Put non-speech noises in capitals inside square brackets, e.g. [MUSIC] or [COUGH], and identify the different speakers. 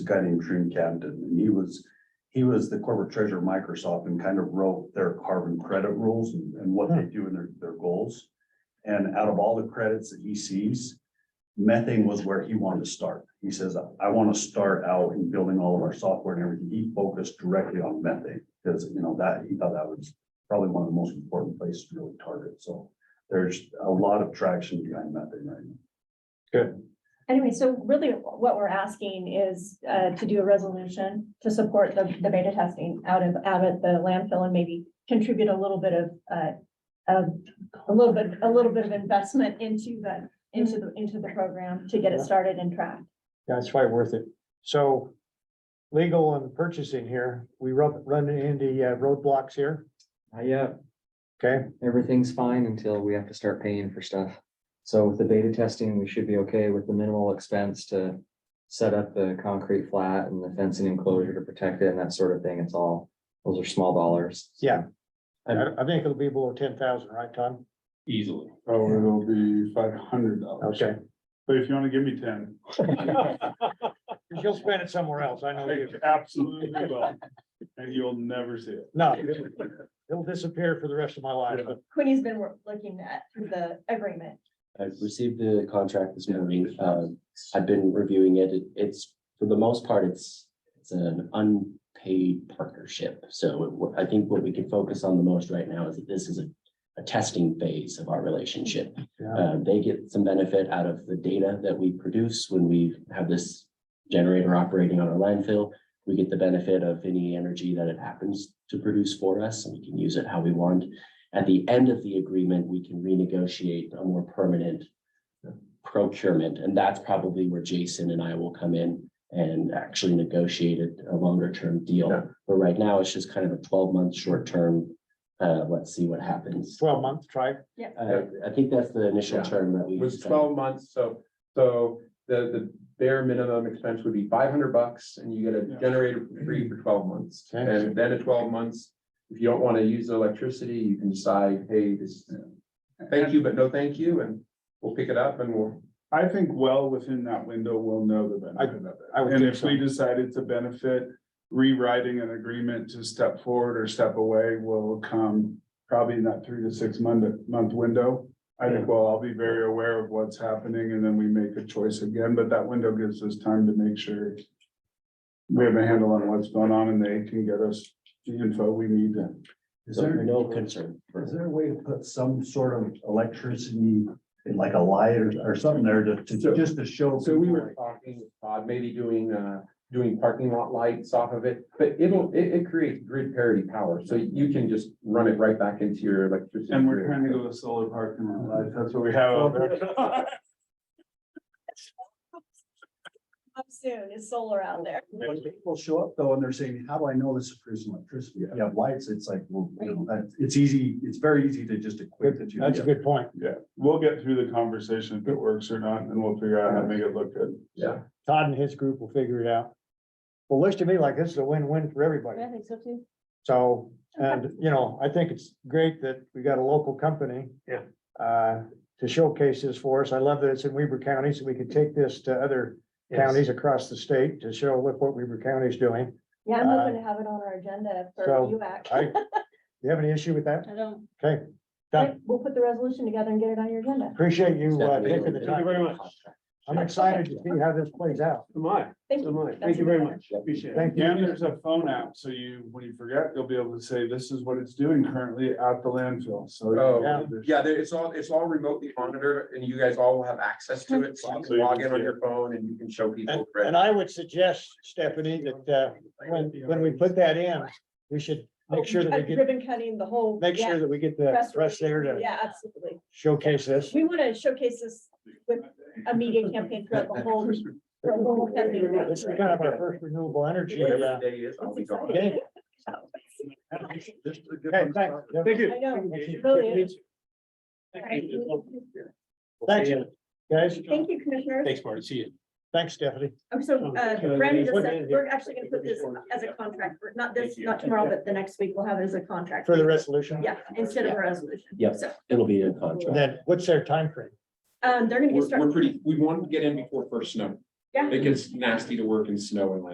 Speaker 1: guy named Dream Camden, and he was, he was the corporate treasurer of Microsoft and kind of wrote their carbon credit rules and, and what they do and their, their goals. And out of all the credits that he sees, methane was where he wanted to start. He says, I want to start out in building all of our software and everything. He focused directly on methane because, you know, that, he thought that was probably one of the most important places to really target. So there's a lot of traction behind methane right now.
Speaker 2: Anyway, so really what we're asking is uh, to do a resolution to support the, the beta testing out of, out at the landfill and maybe contribute a little bit of, uh, of, a little bit, a little bit of investment into the, into the, into the program to get it started and tracked.
Speaker 3: That's probably worth it. So legal and purchasing here, we rub, run into uh, roadblocks here,
Speaker 4: Uh, yeah,
Speaker 3: okay?
Speaker 4: everything's fine until we have to start paying for stuff. So with the beta testing, we should be okay with the minimal expense to set up the concrete flat and the fencing enclosure to protect it and that sort of thing. It's all, those are small dollars.
Speaker 3: Yeah.
Speaker 4: And-
Speaker 3: I, I think it'll be below ten thousand, right, Tom?
Speaker 5: Easily.
Speaker 6: Oh, it'll be five hundred dollars.
Speaker 3: Okay.
Speaker 6: But if you wanna give me ten.
Speaker 3: You'll spend it somewhere else, I know
Speaker 6: I
Speaker 3: you.
Speaker 6: Absolutely will, and you'll never see it. [LAUGHS]
Speaker 3: No, it'll- it'll disappear for the rest of my life, but
Speaker 2: Quinny's been wor- looking at the agreement.
Speaker 7: I've received the contract this morning. Uh, I've been reviewing it. It- It's, for the most part, it's, it's an unpaid partnership. So it wa- I think what we can focus on the most right now is that this is a, a testing phase of our relationship.
Speaker 3: Yeah.
Speaker 7: Uh, they get some benefit out of the data that we produce when we have this generator operating on our landfill. We get the benefit of any energy that it happens to produce for us, and we can use it how we want. At the end of the agreement, we can renegotiate a more permanent procurement, and that's probably where Jason and I will come in and actually negotiate a- a longer-term deal.
Speaker 3: Yeah.
Speaker 7: But right now, it's just kind of a twelve-month short-term, uh, let's see what happens.
Speaker 3: twelve months, try.
Speaker 7: Uh, I think that's the initial term that we.
Speaker 8: was
Speaker 7: decided.
Speaker 8: twelve months, so, so the, the bare minimum expense would be five hundred bucks and you get a
Speaker 6: Yeah.
Speaker 8: generator for free for twelve months.
Speaker 3: Okay.
Speaker 8: And then at twelve months, if you don't want to use the electricity, you can decide, hey, this, thank you, but no thank you, and we'll pick it up and we'll.
Speaker 6: I think well within that window, we'll know the benefit of
Speaker 3: I would
Speaker 6: it. And
Speaker 3: think
Speaker 6: if
Speaker 3: so.
Speaker 6: we decided to benefit, rewriting an agreement to step forward or step away will come probably in that three to six month, month window. I think we'll all be very aware of what's happening and then we make a choice again, but that window gives us time to make sure we have a handle on what's going on and they can get us the info we need to.
Speaker 1: Is
Speaker 7: So
Speaker 1: there,
Speaker 7: no concern. for-
Speaker 1: is there a way to put some sort of electricity in like a light or, or something there to, to, just to show?
Speaker 8: So we
Speaker 1: people,
Speaker 8: were
Speaker 1: like,
Speaker 8: talking, with Todd, maybe doing, uh, doing parking lot lights off of it, but it'll, it, it creates grid parity power, so you can just run it right back into your electricity.
Speaker 6: And we're
Speaker 8: grid.
Speaker 6: trying to go to solar park in our life. That's what we have out there.
Speaker 2: Up soon is solar out there.
Speaker 1: When people show up though, and they're saying, how do I know this is producing electricity? If you have lights, it's like, well, you know, that, it's easy, it's very easy to just equate that you.
Speaker 3: That's a good point.
Speaker 6: Yeah, we'll get through the conversation if it works or not, and we'll figure out how to make it look good.
Speaker 8: Yeah.
Speaker 3: Todd and his group will figure it out. Well, looks to me like this is a win-win for everybody.
Speaker 2: think so too.
Speaker 3: So, and, you know, I think it's great that we got a local company.
Speaker 5: Yeah.
Speaker 3: Uh, to showcase this for us. I love that it's in Weber County, so we can take this to other counties across the state to show look what Weber County's doing.
Speaker 2: Yeah, I'm
Speaker 3: Uh,
Speaker 2: hoping to have it on our agenda for
Speaker 3: so
Speaker 2: UAC.
Speaker 3: I, you have any issue with that?
Speaker 2: I don't.
Speaker 3: Okay, done.
Speaker 2: We'll put the resolution together and get it on your agenda.
Speaker 3: Appreciate you uh,
Speaker 7: Stephanie,
Speaker 3: taking the time.
Speaker 7: we'll-
Speaker 3: I'm excited to see how this plays out.
Speaker 5: Am I?
Speaker 2: Thank
Speaker 5: Am
Speaker 2: you.
Speaker 5: I?
Speaker 2: That's
Speaker 5: Thank you very
Speaker 2: it.
Speaker 5: much. Appreciate it.
Speaker 3: Thank
Speaker 6: Again,
Speaker 3: you.
Speaker 6: there's a phone app, so you, when you forget, you'll be able to say, this is what it's doing currently at the landfill, so.
Speaker 8: Oh, yeah, there, it's all, it's all remotely monitored and you guys all will have access to it. So you
Speaker 6: So
Speaker 8: can
Speaker 6: you
Speaker 8: log
Speaker 6: can
Speaker 8: in on
Speaker 6: see
Speaker 8: your phone and you can show
Speaker 3: And,
Speaker 8: people.
Speaker 3: and I would suggest, Stephanie, that, uh, when, when we put that in, we should make sure that we get,
Speaker 2: Ribbon cutting the whole.
Speaker 3: make
Speaker 2: yeah,
Speaker 3: sure that we get the
Speaker 2: press
Speaker 3: press there to
Speaker 2: Yeah, absolutely.
Speaker 3: showcase this.
Speaker 2: We want to showcase this with a media campaign throughout the whole. throughout the whole company.
Speaker 3: This is kind of our first renewable energy.
Speaker 8: Whatever
Speaker 3: uh,
Speaker 8: the day is, I'll be gone.
Speaker 3: Okay,
Speaker 1: This is a good
Speaker 3: okay,
Speaker 1: one to
Speaker 3: thanks.
Speaker 1: start.
Speaker 3: Thank
Speaker 2: I know. Really
Speaker 3: you.
Speaker 2: is.
Speaker 3: Thanks, guys.
Speaker 2: Thank you, Commissioner.
Speaker 5: Thanks, Marty. See you.
Speaker 3: Thanks, Stephanie.
Speaker 2: Oh, So uh, Brandon just said, we're actually going to put this as a contract, We're- not this, not tomorrow, but the next week, we'll have it as a contract.
Speaker 3: For the resolution.
Speaker 2: Yeah, instead of a resolution.
Speaker 7: Yep.
Speaker 2: So,
Speaker 7: It'll be in contract.
Speaker 3: And then what's their time frame?
Speaker 2: um, they're going to
Speaker 8: We're,
Speaker 2: get
Speaker 8: we're
Speaker 2: started.
Speaker 8: pretty, we want to get in before first snow.
Speaker 2: Yeah.
Speaker 8: It gets nasty to work in snow and like.